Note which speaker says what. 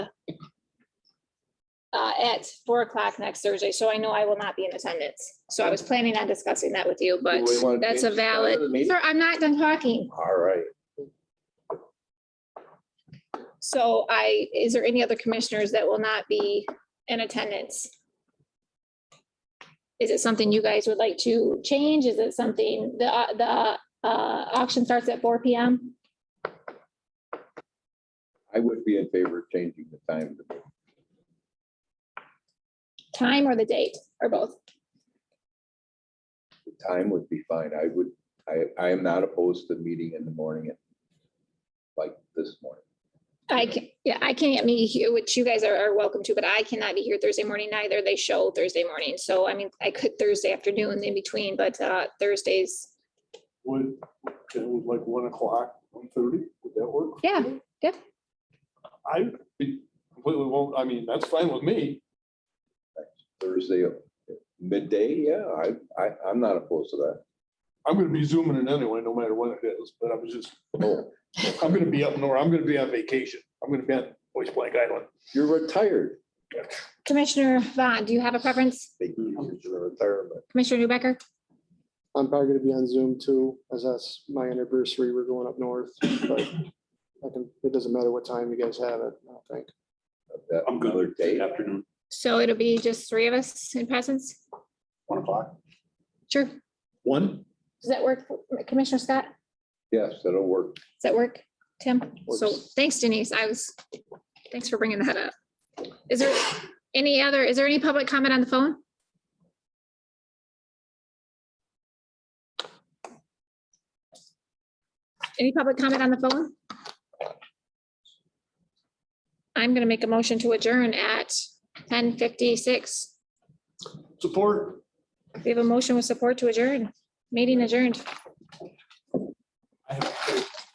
Speaker 1: uh, at four o'clock next Thursday, so I know I will not be in attendance. So I was planning on discussing that with you, but
Speaker 2: Do we wanna
Speaker 1: that's a
Speaker 2: change the start of
Speaker 1: valid,
Speaker 2: the meeting?
Speaker 1: Sir, I'm not done talking.
Speaker 2: All right.
Speaker 1: So I, is there any other commissioners that will not be in attendance? Is it something you guys would like to change? Is it something, the, au- the uh, auction starts at four P M?
Speaker 2: I would be in favor of changing the time.
Speaker 1: Time or the date or both?
Speaker 2: The time would be fine. I would, I, I am not opposed to meeting in the morning at like this morning.
Speaker 1: I can, yeah, I can't be here, which you guys are, are welcome to, but I cannot be here Thursday morning either. They show Thursday morning. So I mean, I could Thursday afternoon in between, but uh, Thursdays,
Speaker 3: Would, it was like one o'clock, one thirty, would that work?
Speaker 1: yeah,
Speaker 3: I be- completely won't, I mean, that's fine with me.
Speaker 2: Thursday midday, yeah, I, I, I'm not opposed to that.
Speaker 3: I'm gonna be zooming in anyway, no matter what it is, but I was just,
Speaker 2: Oh,
Speaker 3: I'm gonna be up north, I'm gonna be on vacation, I'm gonna be on Voice Blank Island.
Speaker 2: You're retired.
Speaker 1: Commissioner Vaughn, do you have a preference?
Speaker 2: They use your retirement.
Speaker 1: Commissioner Newbecker?
Speaker 4: I'm probably gonna be on Zoom too, as that's my anniversary. We're going up north, but I can, it doesn't matter what time you guys have it, I don't think.
Speaker 2: of uh, that
Speaker 3: I'm good.
Speaker 2: Another day.
Speaker 3: Afternoon.
Speaker 1: So it'll be just three of us in presence?
Speaker 3: One o'clock.
Speaker 1: Sure.
Speaker 3: One?
Speaker 1: Does that work, for- Commissioner Scott? Does
Speaker 2: Yes, that'll work.
Speaker 1: that work, Tim? So
Speaker 4: Works.
Speaker 1: thanks Denise. I was, thanks for bringing that up. Is there any other, is there any public comment on the phone? Any public comment on the phone? I'm going to make a motion to adjourn at ten fifty-six.
Speaker 3: Support.
Speaker 1: We have a motion with support to adjourn. Meeting adjourned.
Speaker 3: I have-